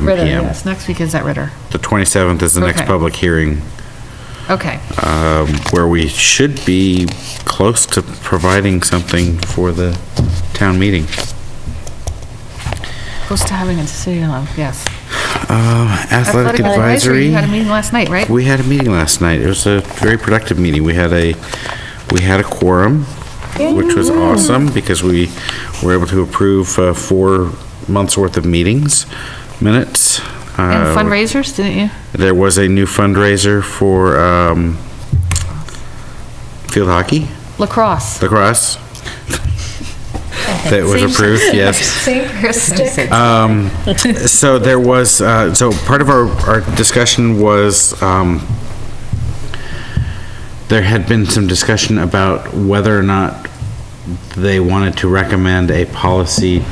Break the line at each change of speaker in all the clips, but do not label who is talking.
7
Ritter,
PM.
yes, next week is at Ritter.
The 27th is the next
Okay.
public hearing,
Okay,
where we should be close to providing something for the town meeting.
close to having a decision on, yes.
Uh, Athletic advisory.
You had a meeting last night, right?
We had a meeting last night. It was a very productive meeting. We had a, we had a quorum, which was awesome because we were able to approve uh, four months' worth of meetings, minutes.
And
Uh,
fundraisers, didn't you?
There was a new fundraiser for um, field hockey,
Lacrosse.
lacrosse. That was approved, yes.
St. Kristen.
Uh, So there was, uh, so part of our, our discussion was, um, there had been some discussion about whether or not they wanted to recommend a policy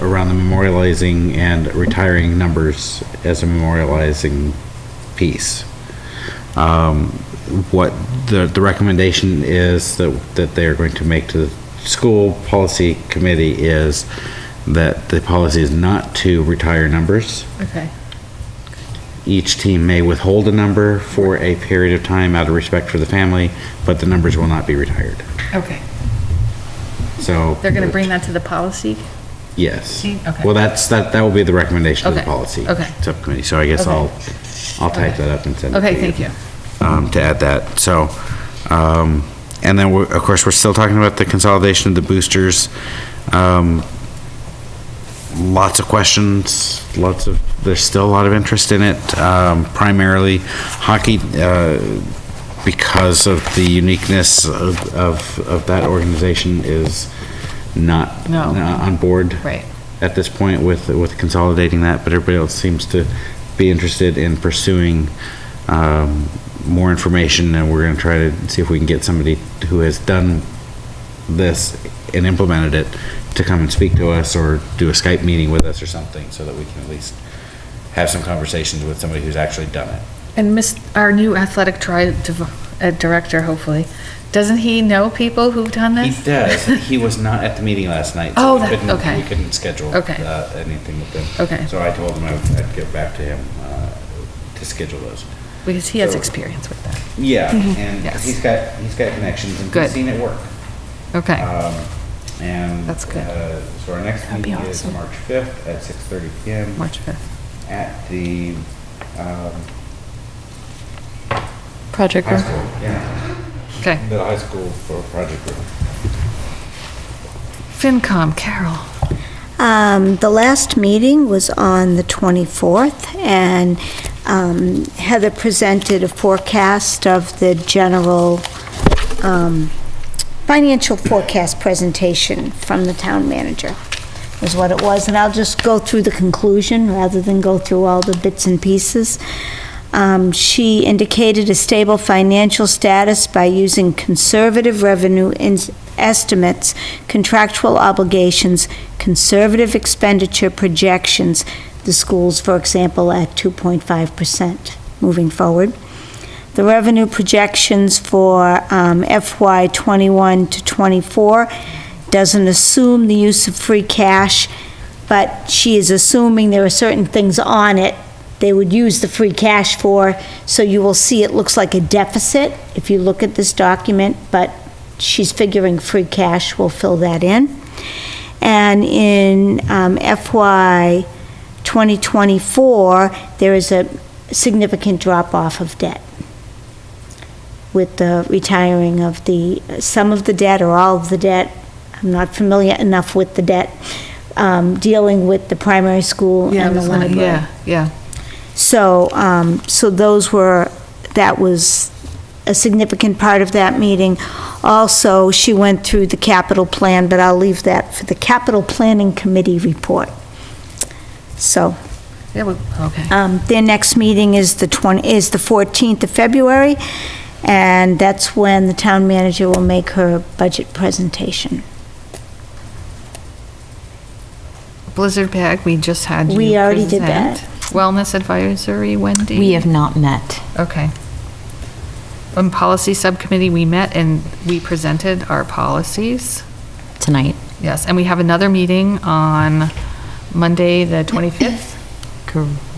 around the memorializing and retiring numbers as a memorializing piece. Um, what the, the recommendation is that, that they are going to make to the school policy committee is that the policy is not to retire numbers.
Okay,
Each team may withhold a number for a period of time out of respect for the family, but the numbers will not be retired.
okay.
So.
They're going to bring that to the policy?
Yes.
Okay.
Well, that's, that, that will be the recommendation of the
Okay,
policy.
okay.
Subcommittee, so I guess
Okay.
I'll, I'll type
Okay.
that up and send it to you.
Okay, thank you.
Um, to add that, so, um, and then we're, of course, we're still talking about the consolidation of the boosters. Um, lots of questions, lots of, there's still a lot of interest in it, um, primarily hockey, uh, because of the uniqueness of, of, of that organization is not
No.
not uh, on board
Right.
at this point with, with consolidating that, but everybody else seems to be interested in pursuing, um, more information, and we're gonna try to see if we can get somebody who has done this and implemented it to come and speak to us or do a Skype meeting with us or something so that we can at least have some conversations with somebody who's actually done it.
And Miss, our new athletic tri, div- uh, director, hopefully, doesn't he know people who've done
He
this?
does. He was not at the meeting last night. so
Oh,
we
that-
couldn't-
okay.
We couldn't schedule uh,
Okay.
anything with him.
Okay.
So I told him I would- I'd get back to him uh, to schedule those.
Because he has
So-
experience with that.
Yeah, and
Mm-hmm. Yes.
he's got, he's got connections and
Good.
he's seen it work.
Okay,
Um, And.
That's good.
uh, So our next
That'd be
meeting is
awesome.
March 5th at 6:30 PM
March 5th.
at the um,
Project
high
room.
school, yeah,
Okay.
the high school for project group.
FinCom, Carol.
Um, The last meeting was on the 24th, and um, Heather presented a forecast of the general um, financial forecast presentation from the town manager, is what it was. And I'll just go through the conclusion rather than go through all the bits and pieces. Um, She indicated a stable financial status by using conservative revenue ins- estimates, contractual obligations, conservative expenditure projections, the schools, for example, at 2.5% moving forward. The revenue projections for um, FY '21 to '24 doesn't assume the use of free cash, but she is assuming there are certain things on it they would use the free cash for, so you will see it looks like a deficit if you look at this document, but she's figuring free cash will fill that in. And in um, FY 2024, there is a significant drop-off of debt with the retiring of the, some of the debt or all of the debt. I'm not familiar enough with the debt, um, dealing with the primary school and the library.
Yeah, yeah.
So, um, so those were, that was a significant part of that meeting. Also, she went through the capital plan, but I'll leave that for the capital planning committee report. So,
Yeah, well, okay.
um, their next meeting is the 20, is the 14th of February, and that's when the town manager will make her budget presentation.
Blizzard bag, we just had you
We already did
present.
that.
Wellness advisory, Wendy?
We have not met.
Okay. On policy subcommittee, we met and we presented our policies.
Tonight.
Yes, and we have another meeting on Monday, the 25th.
Correct.